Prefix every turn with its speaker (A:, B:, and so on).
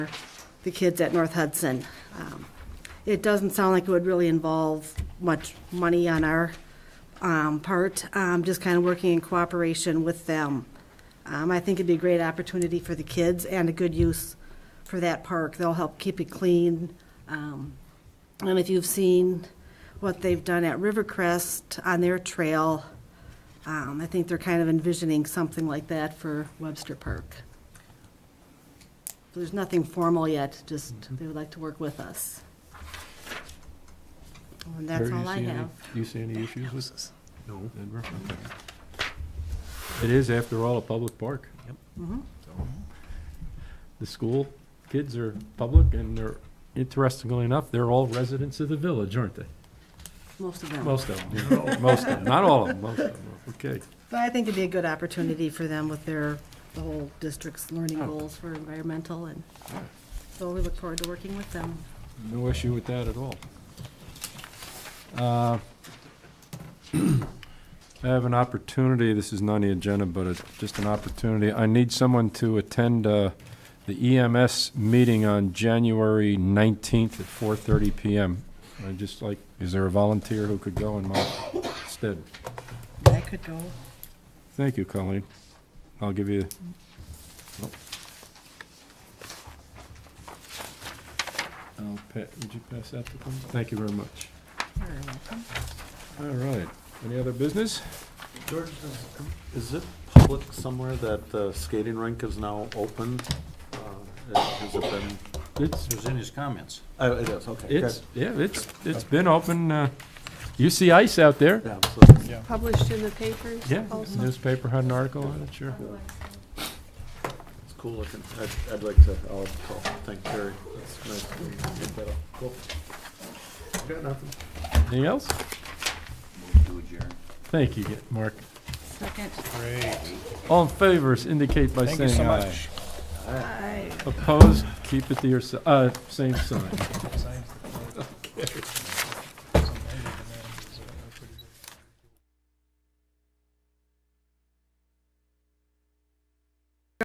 A: the kids at North Hudson. Um, It doesn't sound like it would really involve much money on our um, part, um, just kind of working in cooperation with them. Um, I think it'd be a great opportunity for the kids and a good use for that park. They'll help keep it clean. Um, And if you've seen what they've done at Rivercrest on their trail, um, I think they're kind of envisioning something like that for Webster Park. There's nothing formal yet, just they would like to work with us. And that's
B: Terry, you
A: all I
B: see any-
A: have.
B: Do you see any issues with
C: No.
B: Denver? It is, after all, a public park.
C: Yep.
A: Mhm.
C: So,
B: The school kids are public, and they're, interestingly enough, they're all residents of the village, aren't they?
A: Most of them.
B: Most of them, most of them, not all of them, most of them, okay.
A: But I think it'd be a good opportunity for them with their, the whole district's learning goals for environmental, and so we look forward to working with them.
B: No issue with that at all. Uh, I have an opportunity, this is not on the agenda, but it's just an opportunity. I need someone to attend uh, the EMS meeting on January 19th at 4:30 PM. I'd just like, is there a volunteer who could go in my stead?
A: I could go.
B: Thank you, Colleen. I'll give you. oh. I'll pa, would you pass that to them? Thank you very much. All right. Any other business?
C: George, is- is it public somewhere that the skating rink is now open? Uh, Has it been?
B: It's,
D: It was in his comments.
C: Oh, it is, okay. good.
B: it's, yeah, it's, it's been open. uh, You see ice out there?
C: Yeah, so-
E: Published in the papers
B: Yeah,
E: also?
B: newspaper had an article on it, sure.
C: It's cool looking. I'd, I'd like to, I'll, I'll thank Terry. That's nice. to get that up. Cool. Got nothing.
B: Anything else?
D: Move to adjourn.
B: Thank you, Mark.
A: Second.
B: All in favors indicate by
F: Thank you
B: saying
F: so
B: aye.
F: much.
B: Opposed, keep it to yourself, uh, same sign.